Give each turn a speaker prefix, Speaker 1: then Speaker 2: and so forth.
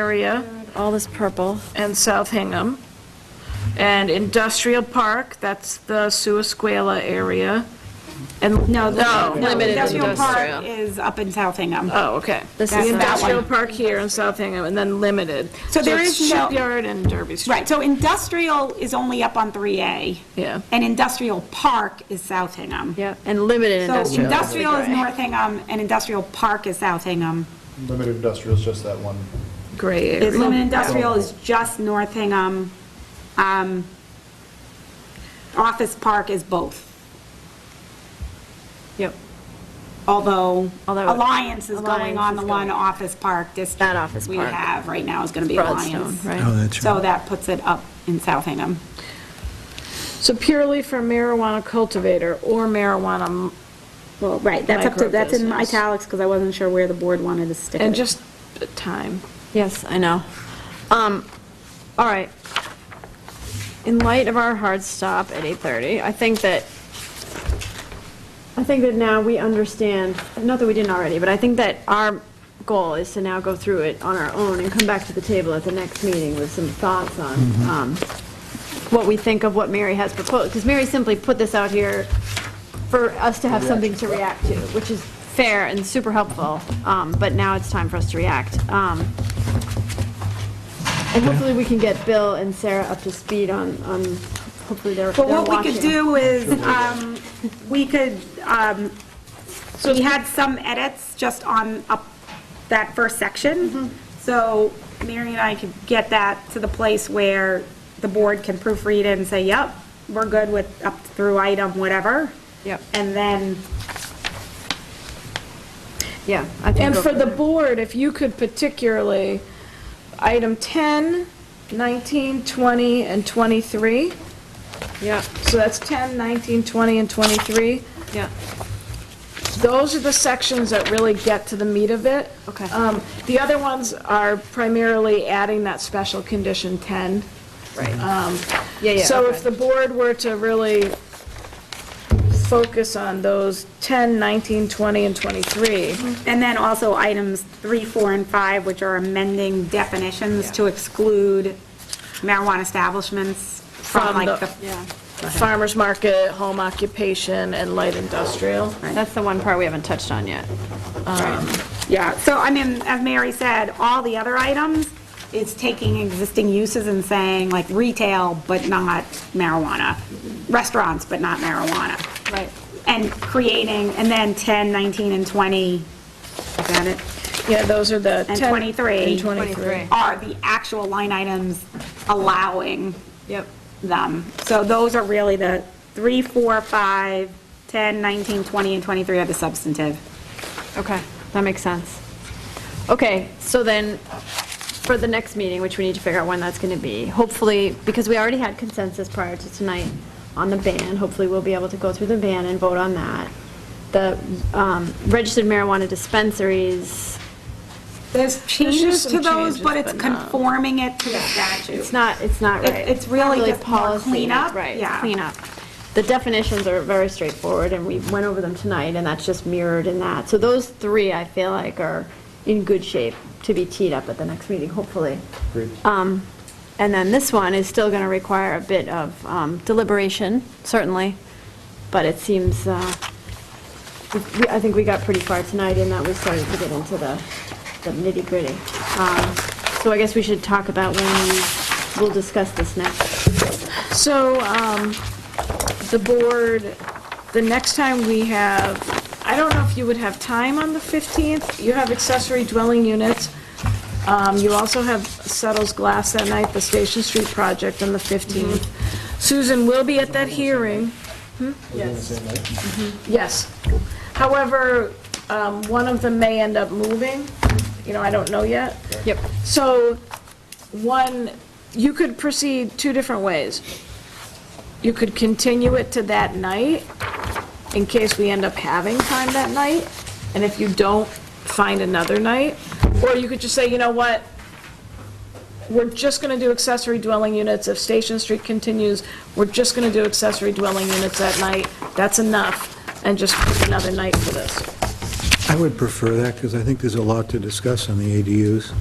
Speaker 1: area
Speaker 2: All this purple.
Speaker 1: and South Hingham. And Industrial Park, that's the Suasquela area. And, No.
Speaker 2: No, the limited
Speaker 3: Industrial
Speaker 2: industrial.
Speaker 3: Park is up in South Hingham.
Speaker 1: oh, okay.
Speaker 2: This
Speaker 1: The
Speaker 2: is the-
Speaker 1: Industrial
Speaker 3: That one.
Speaker 1: Park here in South Hingham, and then Limited.
Speaker 3: So there
Speaker 1: it's
Speaker 3: is no-
Speaker 1: Shipyard and Derby Street.
Speaker 3: Right, so industrial is only up on 3A.
Speaker 1: Yeah.
Speaker 3: And industrial park is South Hingham.
Speaker 2: Yeah, and limited
Speaker 3: So
Speaker 2: industrial.
Speaker 3: industrial is North Hingham, and industrial park is South Hingham.
Speaker 4: Limited industrial is just that one.
Speaker 1: Gray area.
Speaker 3: Limited industrial is just North Hingham. Um, Office park is both,
Speaker 2: Yep.
Speaker 3: although
Speaker 2: Although-
Speaker 3: Alliance is going
Speaker 2: Alliance
Speaker 3: on the
Speaker 2: is
Speaker 3: one
Speaker 2: going-
Speaker 3: office park district.
Speaker 2: That office
Speaker 3: We
Speaker 2: park.
Speaker 3: have right now is going to be
Speaker 2: Broadstone,
Speaker 3: Alliance.
Speaker 5: Oh,
Speaker 2: right?
Speaker 5: that's
Speaker 3: So
Speaker 5: right.
Speaker 3: that puts it up in South Hingham.
Speaker 1: So purely for marijuana cultivator or marijuana,
Speaker 3: Well, right, that's up to, that's in
Speaker 1: Microbusiness.
Speaker 3: italics, because I wasn't sure where the board wanted to stick it.
Speaker 1: and just time.
Speaker 2: Yes, I know. Um, all right. In light of our hard stop at 8:30, I think that, I think that now we understand, not that we didn't already, but I think that our goal is to now go through it on our own and come back to the table at the next meeting with some thoughts on, um, what we think of what Mary has proposed, because Mary simply put this out here for us to have something to react to, which is fair and super helpful, um, but now it's time for us to react. Um, And hopefully, we can get Bill and Sarah up to speed on, on, hopefully they're they're
Speaker 3: But
Speaker 2: watching.
Speaker 3: what we could do is, um, we could, um, we had some edits just on up that first section. So Mary and I could get that to the place where the board can proofread it and say, yep, we're good with up through item whatever.
Speaker 2: Yep.
Speaker 3: And then,
Speaker 2: Yeah. I think
Speaker 1: And
Speaker 2: go
Speaker 1: for the
Speaker 2: it.
Speaker 1: board, if you could particularly, item 10, 19, 20, and 23.
Speaker 2: Yeah,
Speaker 1: So that's 10, 19, 20, and 23.
Speaker 2: yeah.
Speaker 1: Those are the sections that really get to the meat of it.
Speaker 2: Okay.
Speaker 1: Um, The other ones are primarily adding that special condition 10.
Speaker 2: Right. Yeah, yeah.
Speaker 1: So
Speaker 2: okay.
Speaker 1: if the board were to really focus on those 10, 19, 20, and 23,
Speaker 2: Mm-hmm.
Speaker 3: and then also items three, four, and five, which are amending definitions to exclude marijuana establishments from
Speaker 1: From
Speaker 3: like
Speaker 1: the-
Speaker 3: the
Speaker 2: Yeah,
Speaker 1: farmer's market, home occupation, and light industrial.
Speaker 2: that's the one part we haven't touched on yet.
Speaker 3: Yeah, so I mean, as Mary said, all the other items, it's taking existing uses and saying like retail, but not marijuana, restaurants, but not marijuana,
Speaker 2: Right.
Speaker 3: and creating, and then 10, 19, and 20, is that it?
Speaker 1: Yeah, those are the.
Speaker 3: And
Speaker 1: 10
Speaker 3: 23.
Speaker 1: And 23.
Speaker 3: Are the actual line items allowing
Speaker 2: Yep.
Speaker 3: them. So those are really the 3, 4, 5, 10, 19, 20, and 23 are the substantive.
Speaker 2: Okay, that makes sense. Okay, so then, for the next meeting, which we need to figure out when that's going to be, hopefully, because we already had consensus prior to tonight on the ban, hopefully we'll be able to go through the ban and vote on that. The um, registered marijuana dispensaries,
Speaker 3: There's
Speaker 1: just
Speaker 3: changes
Speaker 1: some
Speaker 3: to those,
Speaker 1: changes,
Speaker 3: but it's
Speaker 1: but not-
Speaker 3: conforming it to the statute.
Speaker 2: it's not, it's not
Speaker 3: It-
Speaker 2: right.
Speaker 3: it's really
Speaker 2: Not
Speaker 3: just more
Speaker 2: policy,
Speaker 3: cleanup,
Speaker 2: Right, it's
Speaker 3: yeah.
Speaker 2: cleanup. The definitions are very straightforward, and we went over them tonight, and that's just mirrored in that. So those three, I feel like, are in good shape to be teed up at the next meeting, hopefully.
Speaker 4: Agreed.
Speaker 2: Um, And then this one is still going to require a bit of um, deliberation, certainly, but it seems, uh, we- we- I think we got pretty far tonight in that we started to get into the the nitty-gritty. Um, So I guess we should talk about when we- we'll discuss this next.
Speaker 1: So, um, the board, the next time we have, I don't know if you would have time on the 15th. You have accessory dwelling units. Um, you also have Settles Glass that night, the Station Street project on the 15th. Susan will be at that hearing. Hmm? Mm-hmm.
Speaker 4: Yes.
Speaker 1: Yes. However, um, one of them may end up moving. You know, I don't know yet.
Speaker 2: Yep.
Speaker 1: So, one, you could proceed two different ways. You could continue it to that night, in case we end up having time that night, and if you don't, find another night. Or you could just say, you know what, we're just going to do accessory dwelling units, if Station Street continues, we're just going to do accessory dwelling units that night, that's enough, and just pick another night for this.
Speaker 5: I would prefer that, because I think there's a lot to discuss on the ADUs.